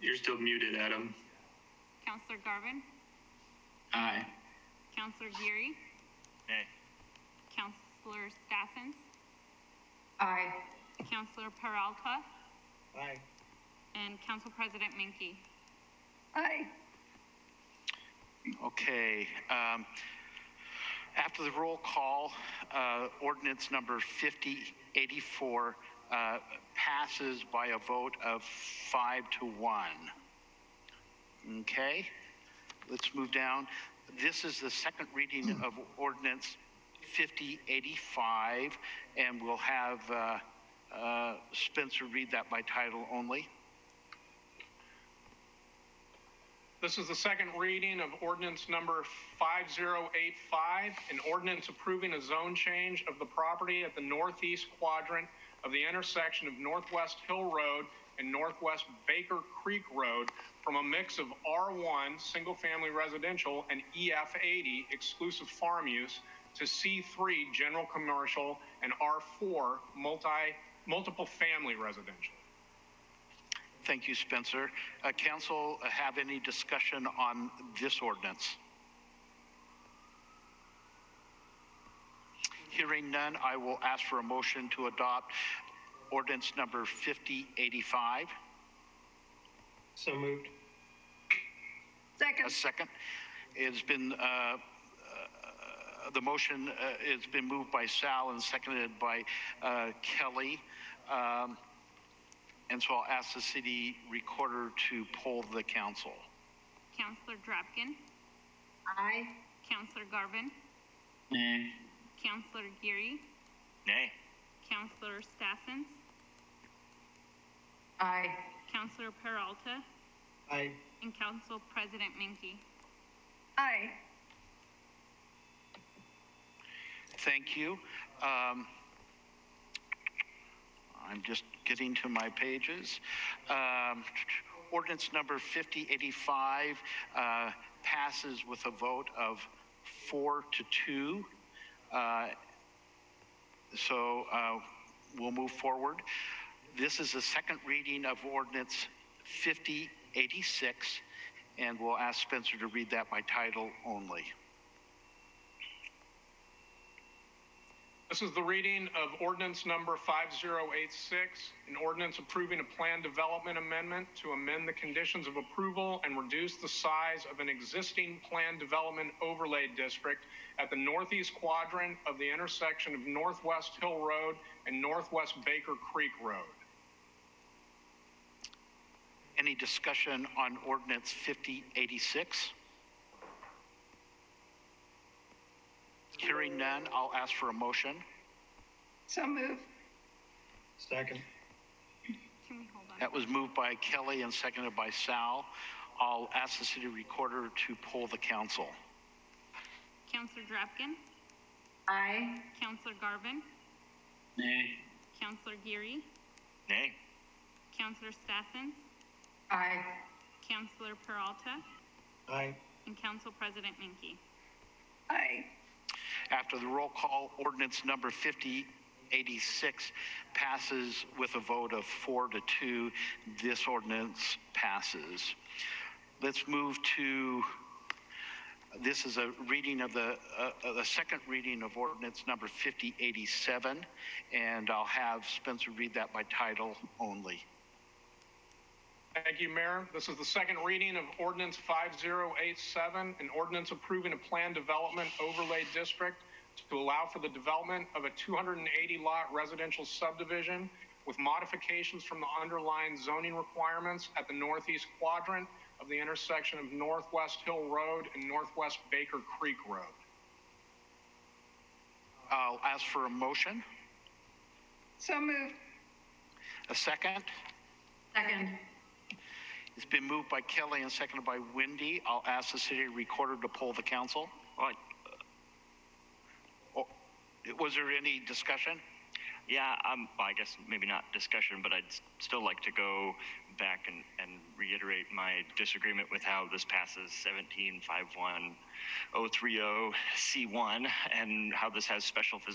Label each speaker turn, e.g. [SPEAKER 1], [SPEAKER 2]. [SPEAKER 1] You're still muted, Adam.
[SPEAKER 2] Counselor Garvin,
[SPEAKER 1] Aye.
[SPEAKER 2] Counselor Geary,
[SPEAKER 3] Nay.
[SPEAKER 2] Counselor Stassens,
[SPEAKER 4] Aye.
[SPEAKER 2] Counselor Peralta,
[SPEAKER 3] Aye.
[SPEAKER 2] and Council President Menke.
[SPEAKER 4] Aye.
[SPEAKER 3] Okay, um, after the roll call, uh, ordinance number 5084 uh, passes by a vote of five to one. Okay, let's move down. This is the second reading of ordinance 5085, and we'll have uh, uh, Spencer read that by title only.
[SPEAKER 5] This is the second reading of ordinance number 5085, an ordinance approving a zone change of the property at the northeast quadrant of the intersection of Northwest Hill Road and Northwest Baker Creek Road from a mix of R1, single-family residential, and EF80, exclusive farm use, to C3, general commercial, and R4, multi, multiple family residential.
[SPEAKER 3] Thank you, Spencer. Uh, Council, uh, have any discussion on this ordinance? Hearing none, I will ask for a motion to adopt ordinance number 5085.
[SPEAKER 1] So moved.
[SPEAKER 4] Second.
[SPEAKER 3] A second. It's been, uh, uh, the motion, uh, it's been moved by Sal and seconded by uh, Kelly. Um, And so I'll ask the city recorder to poll the council.
[SPEAKER 2] Counselor Drapkin,
[SPEAKER 4] Aye.
[SPEAKER 2] Counselor Garvin,
[SPEAKER 1] Nay.
[SPEAKER 2] Counselor Geary,
[SPEAKER 3] Nay.
[SPEAKER 2] Counselor Stassens,
[SPEAKER 4] Aye.
[SPEAKER 2] Counselor Peralta,
[SPEAKER 1] Aye.
[SPEAKER 2] and Council President Menke.
[SPEAKER 4] Aye.
[SPEAKER 3] Thank you. Um, I'm just getting to my pages. Um, ordinance number 5085 uh, passes with a vote of four to two. Uh, so uh, we'll move forward. This is the second reading of ordinance 5086, and we'll ask Spencer to read that by title only.
[SPEAKER 5] This is the reading of ordinance number 5086, an ordinance approving a plan development amendment to amend the conditions of approval and reduce the size of an existing plan development overlay district at the northeast quadrant of the intersection of Northwest Hill Road and Northwest Baker Creek Road.
[SPEAKER 3] Any discussion on ordinance 5086? Hearing none, I'll ask for a motion.
[SPEAKER 4] So move.
[SPEAKER 1] Second.
[SPEAKER 2] Can we hold on?
[SPEAKER 3] That was moved by Kelly and seconded by Sal. I'll ask the city recorder to poll the council.
[SPEAKER 2] Counselor Drapkin,
[SPEAKER 4] Aye.
[SPEAKER 2] Counselor Garvin,
[SPEAKER 1] Nay.
[SPEAKER 2] Counselor Geary,
[SPEAKER 3] Nay.
[SPEAKER 2] Counselor Stassens,
[SPEAKER 4] Aye.
[SPEAKER 2] Counselor Peralta,
[SPEAKER 1] Aye.
[SPEAKER 2] and Council President Menke.
[SPEAKER 4] Aye.
[SPEAKER 3] After the roll call, ordinance number 5086 passes with a vote of four to two. This ordinance passes. Let's move to, this is a reading of the, uh, uh, the second reading of ordinance number 5087, and I'll have Spencer read that by title only.
[SPEAKER 5] Thank you, Mayor. This is the second reading of ordinance 5087, an ordinance approving a plan development overlay district to allow for the development of a 280-lot residential subdivision with modifications from the underlying zoning requirements at the northeast quadrant of the intersection of Northwest Hill Road and Northwest Baker Creek Road.
[SPEAKER 3] I'll ask for a motion,
[SPEAKER 4] So moved.
[SPEAKER 3] a second.
[SPEAKER 4] Second.
[SPEAKER 3] It's been moved by Kelly and seconded by Wendy. I'll ask the city recorder to poll the council.
[SPEAKER 6] Right.
[SPEAKER 3] Oh, Was there any discussion?
[SPEAKER 6] Yeah, um, well, I guess maybe not discussion, but I'd s- still like to go back and, and reiterate my disagreement with how this passes 1751030C1 and how this has special physical